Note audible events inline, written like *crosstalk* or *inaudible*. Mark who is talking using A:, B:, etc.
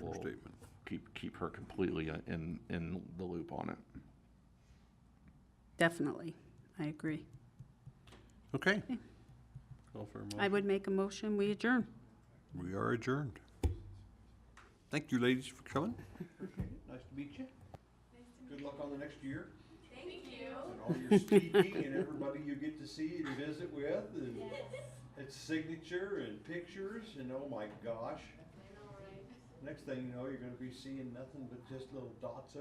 A: we'll
B: statement.
A: keep, keep her completely in, in the loop on it.
C: Definitely, I agree. *laughs*
B: Okay,
D: Call for a
C: I
D: motion.
C: would make a motion, we adjourn.
B: we are adjourned. Thank you, ladies, for coming. Nice to meet you. Good luck on the next year. Thank you. And all your speaking and everybody you get to see and visit with and its signature and pictures and oh my gosh. Next thing you know, you're gonna be seeing nothing but just little dots